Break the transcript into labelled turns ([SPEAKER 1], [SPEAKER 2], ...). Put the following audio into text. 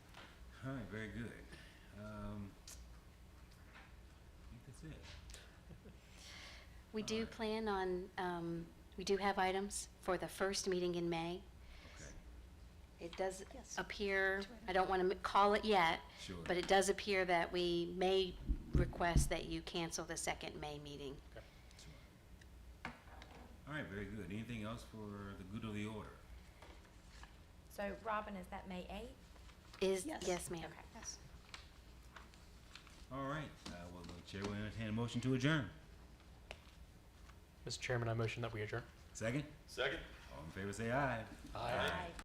[SPEAKER 1] right, very good. Um, I think that's it.
[SPEAKER 2] We do
[SPEAKER 1] Alright.
[SPEAKER 2] plan on, um, we do have items for the first meeting in May.
[SPEAKER 1] Okay,
[SPEAKER 2] It does
[SPEAKER 3] Yes.
[SPEAKER 2] appear,
[SPEAKER 3] Two items.
[SPEAKER 2] I don't want to call it yet,
[SPEAKER 1] sure.
[SPEAKER 2] but it does appear that we may request that you cancel the second May meeting.
[SPEAKER 1] Sure. All right, very good. Anything else for the good of the order?
[SPEAKER 4] So Robin, is that May eighth?
[SPEAKER 2] Is,
[SPEAKER 3] Yes.
[SPEAKER 2] yes, ma'am.
[SPEAKER 4] Okay.
[SPEAKER 3] Yes.
[SPEAKER 1] All right, uh, well, the chair will entertain a motion to adjourn.
[SPEAKER 5] Mr. Chairman, I motion that we adjourn.
[SPEAKER 1] Second?
[SPEAKER 6] Second?
[SPEAKER 1] All in favor, say aye.
[SPEAKER 5] Aye.
[SPEAKER 4] Aye.